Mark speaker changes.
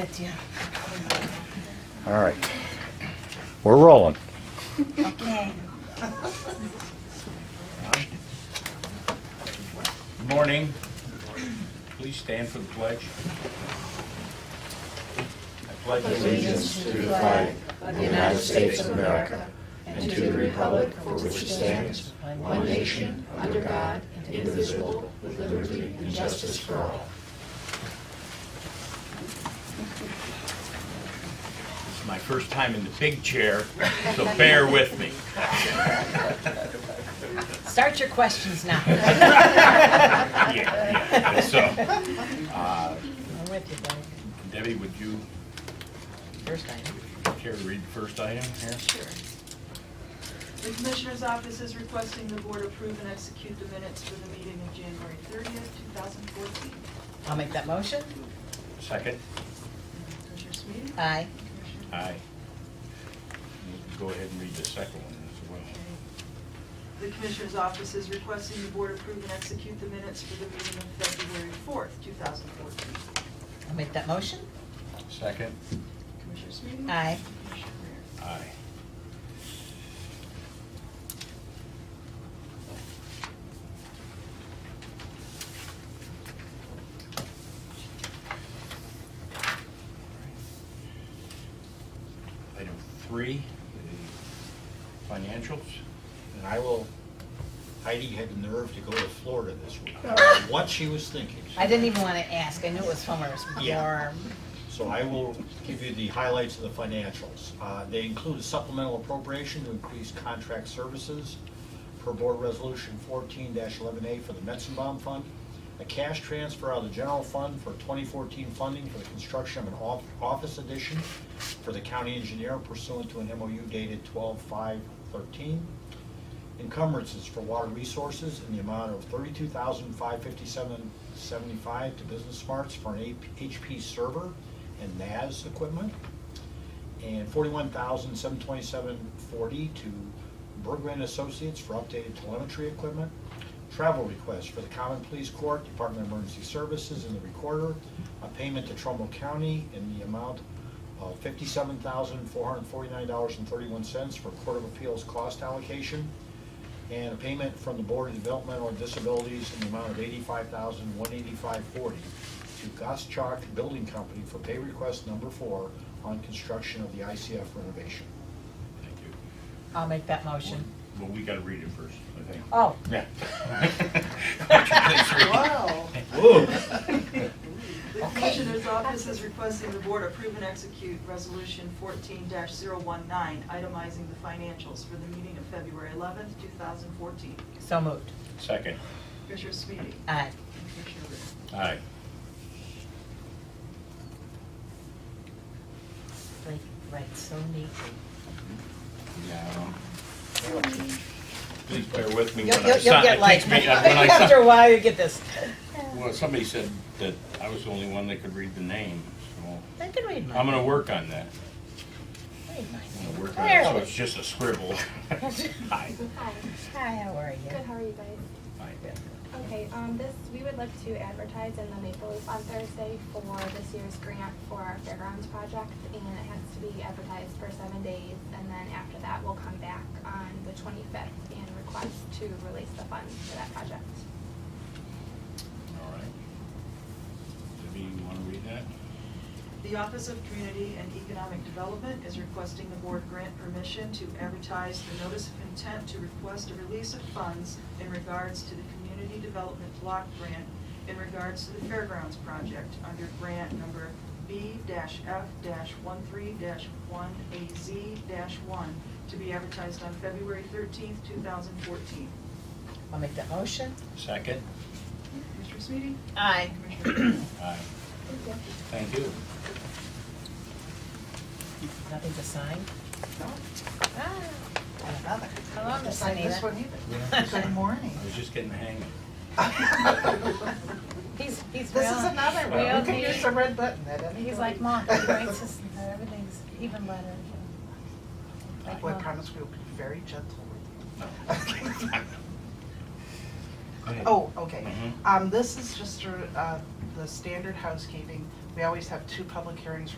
Speaker 1: With you.
Speaker 2: All right. We're rolling.
Speaker 1: Okay.
Speaker 3: Morning. Please stand for the pledge. I pledge allegiance. This is my first time in the big chair, so bear with me.
Speaker 1: Start your questions now. I'm
Speaker 3: Yeah, yeah. So, uh,
Speaker 1: with you, buddy.
Speaker 3: Debbie, would you
Speaker 1: First item.
Speaker 3: care to read the first item here?
Speaker 4: The Commissioner's Office is requesting the Board approve and execute the minutes for the meeting of January 30th, 2014.
Speaker 1: I'll make that motion.
Speaker 3: Second?
Speaker 4: Commissioner Smeeden?
Speaker 1: Aye.
Speaker 4: Commissioner-
Speaker 3: Aye. Go ahead and read the second one as well.
Speaker 4: Okay. The Commissioner's Office is requesting the Board approve and execute the minutes for the meeting of February 4th, 2014.
Speaker 1: I'll make that motion.
Speaker 3: Second?
Speaker 4: Commissioner Smeeden?
Speaker 1: Aye.
Speaker 4: Commissioner Rea?
Speaker 3: Aye. Item three, the financials.
Speaker 5: And I will, Heidi had the nerve to go to Florida this week. What she was thinking.
Speaker 1: I didn't even want to ask. I knew it was summer.
Speaker 5: Yeah.
Speaker 1: warm.
Speaker 5: So I will give you the highlights of the financials. Uh, They include a supplemental appropriation to increase contract services per Board Resolution 14-11A for the Metzenbaum Fund, a cash transfer out of the general fund for 2014 funding for the construction of an off- office addition for the county engineer pursuant to an MOU dated 12/5/13, encumbrances for water resources in the amount of thirty-two thousand five fifty-seven seventy-five to Business Smarts for an HP server and NAS equipment, and forty-one thousand seven twenty-seven forty to Bergman Associates for updated telemetry equipment, travel requests for the Common Police Court, Department of Emergency Services, and the Recorder, a payment to Trumbull County in the amount of fifty-seven thousand four hundred forty-nine dollars and thirty-one cents for Court of Appeals cost allocation, and a payment from the Board of Developmental Disabilities in the amount of eighty-five thousand, one eighty-five forty to Goschak Building Company for pay request number four on construction of the ICF renovation.
Speaker 3: Thank you.
Speaker 1: I'll make that motion.
Speaker 3: Well, we gotta read it first, I think.
Speaker 1: Oh,
Speaker 3: Yeah.
Speaker 4: Wow.
Speaker 5: Whoa.
Speaker 4: The Commissioner's Office is requesting the Board approve and execute Resolution 14-019, itemizing the financials for the meeting of February 11th, 2014.
Speaker 1: so moved.
Speaker 3: Second?
Speaker 4: Commissioner Sweetie?
Speaker 1: Aye.
Speaker 4: Commissioner Rea?
Speaker 3: Aye.
Speaker 1: Right, Right, so neatly.
Speaker 3: Yeah. Please bear with me.
Speaker 1: You'll,
Speaker 3: when I
Speaker 1: you'll you'll
Speaker 3: sign-
Speaker 1: get
Speaker 3: it
Speaker 1: like,
Speaker 3: takes me- uh, when I sign-
Speaker 1: after a while, you get this.
Speaker 3: Well, somebody said that I was the only one that could read the name, so
Speaker 1: I can read mine.
Speaker 3: I'm gonna work on that.
Speaker 1: Read mine.
Speaker 3: I'm gonna work on it, so
Speaker 1: Barely.
Speaker 3: it's just a scribble. Hi.
Speaker 6: Hi.
Speaker 1: Hi, how are you?
Speaker 6: Good, how are you guys?
Speaker 3: Hi.
Speaker 6: Okay, um, this, we would like to advertise in the Maple Leaf on Thursday for this year's grant for our fairgrounds project, and it has to be advertised for seven days, and then after that, we'll come back on the twenty-fifth and request to release the funds for that project.
Speaker 3: All right. Debbie, you wanna read that?
Speaker 4: The Office of Community and Economic Development is requesting the board grant permission to advertise the notice of intent to request a release of funds in regards to the Community Development Block Grant in regards to the Fairgrounds Project under grant number B-F-13-1AZ-1 to be advertised on February 13th, 2014.
Speaker 1: I'll make that motion.
Speaker 3: Second?
Speaker 4: Commissioner Sweetie?
Speaker 1: Aye.
Speaker 4: Commissioner Rea?
Speaker 3: Aye.
Speaker 6: Thank you.
Speaker 3: Thank you.
Speaker 1: Nothing to sign?
Speaker 7: No.
Speaker 1: Ah,
Speaker 7: Another.
Speaker 1: How long is
Speaker 7: Like this
Speaker 1: Anita?
Speaker 7: one either. Good morning.
Speaker 3: I was just getting the hang of it.
Speaker 1: He's, he's.
Speaker 7: This is
Speaker 1: real-
Speaker 7: another
Speaker 1: real
Speaker 7: one. We could
Speaker 1: neat.
Speaker 7: use the red button at any.
Speaker 1: He's like,
Speaker 7: point.
Speaker 1: Mom, he writes us, everything's even better. Like,
Speaker 7: Well, I
Speaker 1: Mom.
Speaker 7: promise we'll be very gentle
Speaker 3: No.
Speaker 7: with you.
Speaker 3: Go ahead.
Speaker 7: Oh, okay.
Speaker 3: Mhm.
Speaker 7: Um, this is just, uh, the standard housekeeping.
Speaker 4: We always have two public hearings